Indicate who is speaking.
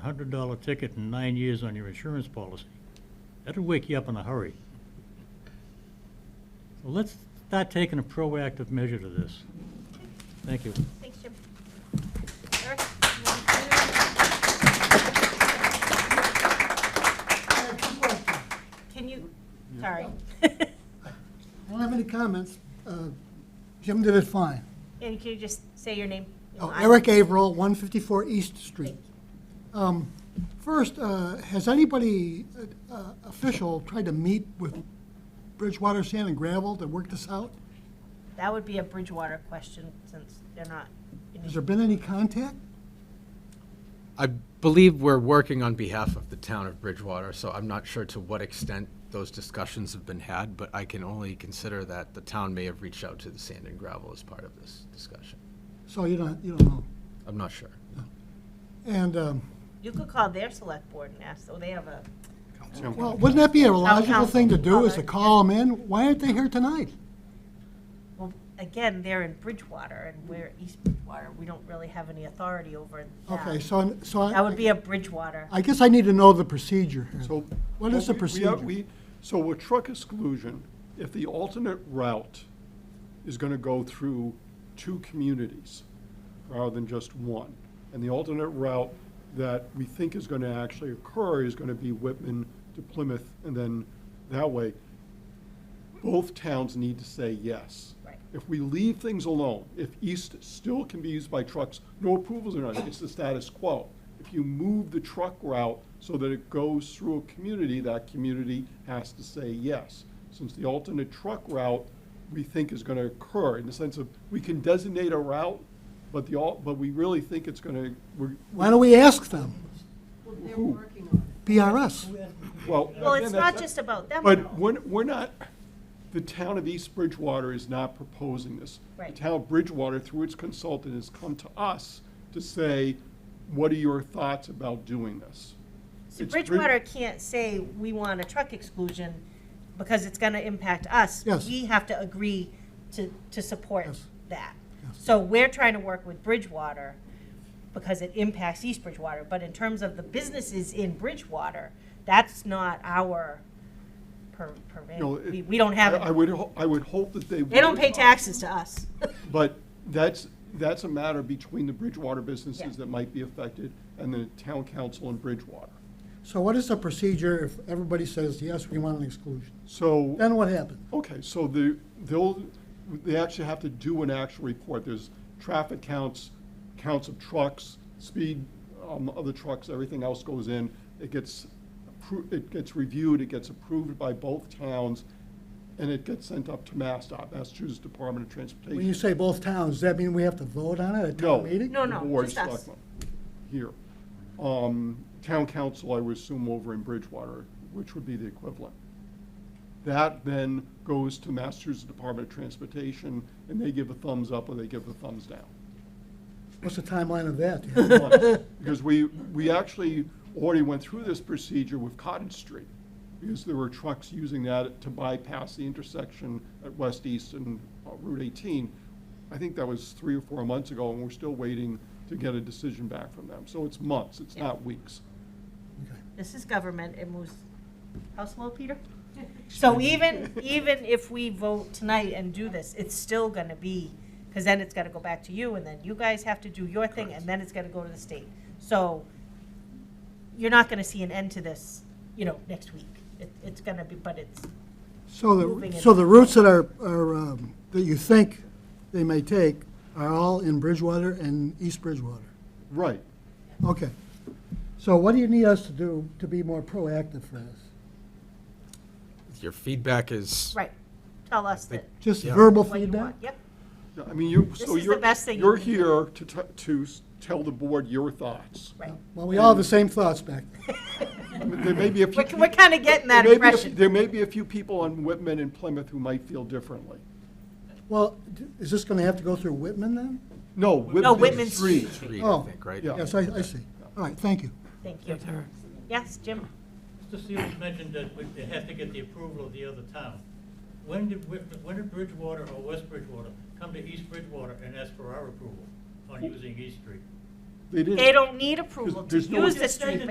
Speaker 1: a hundred dollar ticket and nine years on your insurance policy. That'll wake you up in a hurry. So let's start taking a proactive measure to this. Thank you.
Speaker 2: Thanks, Jim. Eric, you want to continue?
Speaker 3: I have two questions.
Speaker 2: Can you, sorry.
Speaker 3: I don't have any comments. Uh, Jim did it fine.
Speaker 2: And can you just say your name?
Speaker 3: Oh, Eric Averill, 154 East Street. Um, First, uh, has anybody uh, uh, official tried to meet with Bridgewater Sand and Gravel to work this out?
Speaker 2: That would be a Bridgewater question, since they're not. in
Speaker 3: Has there been any contact?
Speaker 4: I believe we're working on behalf of the town of Bridgewater, so I'm not sure to what extent those discussions have been had, but I can only consider that the town may have reached out to the sand and gravel as part of this discussion.
Speaker 3: So you don't, you don't know.
Speaker 4: I'm not sure.
Speaker 3: And, um,
Speaker 2: You could call their select board and ask, so they have a,
Speaker 3: well, wouldn't that be a logical
Speaker 2: council.
Speaker 3: thing to do, is
Speaker 2: Oh,
Speaker 3: to
Speaker 2: yeah.
Speaker 3: call them in? Why aren't they here tonight?
Speaker 2: well, again, they're in Bridgewater, and we're East Bridgewater. We don't really have any authority over that.
Speaker 3: Okay, so, so
Speaker 2: That would
Speaker 3: I
Speaker 2: be a Bridgewater.
Speaker 3: I guess I need to know the procedure here.
Speaker 5: So.
Speaker 3: What is the
Speaker 5: Well, we- we are-
Speaker 3: procedure?
Speaker 5: we- So with truck exclusion, if the alternate route is gonna go through two communities rather than just one, and the alternate route that we think is gonna actually occur is gonna be Whitman to Plymouth, and then that way, both towns need to say yes.
Speaker 2: Right.
Speaker 5: If we leave things alone, if east still can be used by trucks, no approvals or nothing, it's the status quo. If you move the truck route so that it goes through a community, that community has to say yes. Since the alternate truck route, we think is gonna occur, in the sense of, we can designate a route, but the all, but we really think it's gonna, we're,
Speaker 3: Why don't we ask them?
Speaker 6: They're working on it.
Speaker 3: PRS.
Speaker 5: well.
Speaker 2: Well,
Speaker 5: again,
Speaker 2: it's
Speaker 5: that's-
Speaker 2: not just about them,
Speaker 5: But
Speaker 2: though.
Speaker 5: we're, we're not, the town of East Bridgewater is not proposing this.
Speaker 2: Right.
Speaker 5: The town of Bridgewater, through its consultant, has come to us to say, what are your thoughts about doing this?
Speaker 2: So
Speaker 5: It's Brid-
Speaker 2: Bridgewater can't say, we want a truck exclusion, because it's gonna impact us.
Speaker 3: Yes.
Speaker 2: We have to agree to, to support
Speaker 3: Yes.
Speaker 2: that.
Speaker 3: Yes.
Speaker 2: So we're trying to work with Bridgewater, because it impacts East Bridgewater, but in terms of the businesses in Bridgewater, that's not our per,
Speaker 5: You know,
Speaker 2: purvey.
Speaker 5: it-
Speaker 2: We, we don't have
Speaker 5: I- I
Speaker 2: it.
Speaker 5: would, ho- I would hope that they.
Speaker 2: They don't
Speaker 5: would.
Speaker 2: pay taxes to us.
Speaker 5: But that's, that's a matter between the Bridgewater businesses
Speaker 2: Yeah.
Speaker 5: that might be affected and the town council in Bridgewater.
Speaker 3: So what is the procedure if everybody says, yes, we want an exclusion?
Speaker 5: So.
Speaker 3: Then what happens?
Speaker 5: Okay, so the, they'll, they actually have to do an actual report. There's traffic counts, counts of trucks, speed, um, other trucks, everything else goes in. It gets, appro- it gets reviewed, it gets approved by both towns, and it gets sent up to MassDOT, Massachusetts Department of Transportation.
Speaker 3: When you say both towns, does that mean we have to vote on it at
Speaker 5: No.
Speaker 3: town meeting?
Speaker 2: No, no,
Speaker 5: the board
Speaker 2: just us.
Speaker 5: selectmen Here. Um, Town council, I would assume over in Bridgewater, which would be the equivalent. That then goes to Massachusetts Department of Transportation, and they give a thumbs up or they give a thumbs down.
Speaker 3: What's the timeline of that?
Speaker 5: Because we, we actually already went through this procedure with Cottage Street, because there were trucks using that to bypass the intersection at West East and uh, Route 18. I think that was three or four months ago, and we're still waiting to get a decision back from them. So it's months, it's not weeks.
Speaker 2: This is government, it moves, how slow, Peter? So even, even if we vote tonight and do this, it's still gonna be, because then it's gotta go back to you, and then you guys have to do your thing, and then it's gonna go to the state. So you're not gonna see an end to this, you know, next week. It, it's gonna be, but it's,
Speaker 3: So
Speaker 2: Moving
Speaker 3: the,
Speaker 2: it.
Speaker 3: so the routes that are, are, um, that you think they may take are all in Bridgewater and East Bridgewater?
Speaker 5: Right.
Speaker 3: Okay. So what do you need us to do to be more proactive for this?
Speaker 4: Your feedback is,
Speaker 2: right, tell us that,
Speaker 3: Just
Speaker 4: Yeah.
Speaker 3: verbal
Speaker 2: what you
Speaker 3: feedback?
Speaker 2: want, yep.
Speaker 5: Yeah, I mean, you, so
Speaker 2: is the
Speaker 5: you're,
Speaker 2: best thing you
Speaker 5: you're
Speaker 2: can do.
Speaker 5: here to, t- to s- tell the board your thoughts.
Speaker 2: Right.
Speaker 3: Well, we all have the same thoughts back there.
Speaker 5: I mean, There may be a few.
Speaker 2: We're, we're kinda getting that
Speaker 5: there may be a-
Speaker 2: impression.
Speaker 5: There may be a few people on Whitman and Plymouth who might feel differently.
Speaker 3: Well, d- is this gonna have to go through Whitman then?
Speaker 5: No, Whitman.
Speaker 2: No, Whitman's
Speaker 5: Street.
Speaker 4: three, I
Speaker 3: Oh,
Speaker 4: think, right?
Speaker 5: yeah.
Speaker 3: Yes, I, I see. All right, thank you.
Speaker 2: Thank you. Yes, Jim?
Speaker 1: Mr. Seals mentioned that we- they have to get the approval of the other town. When did, Whit- when did Bridgewater or West Bridgewater come to East Bridgewater and ask for our approval on using East Street?
Speaker 7: They didn't.
Speaker 5: They don't need approval to
Speaker 7: There's no-
Speaker 5: use the
Speaker 2: Just say
Speaker 5: street,
Speaker 2: that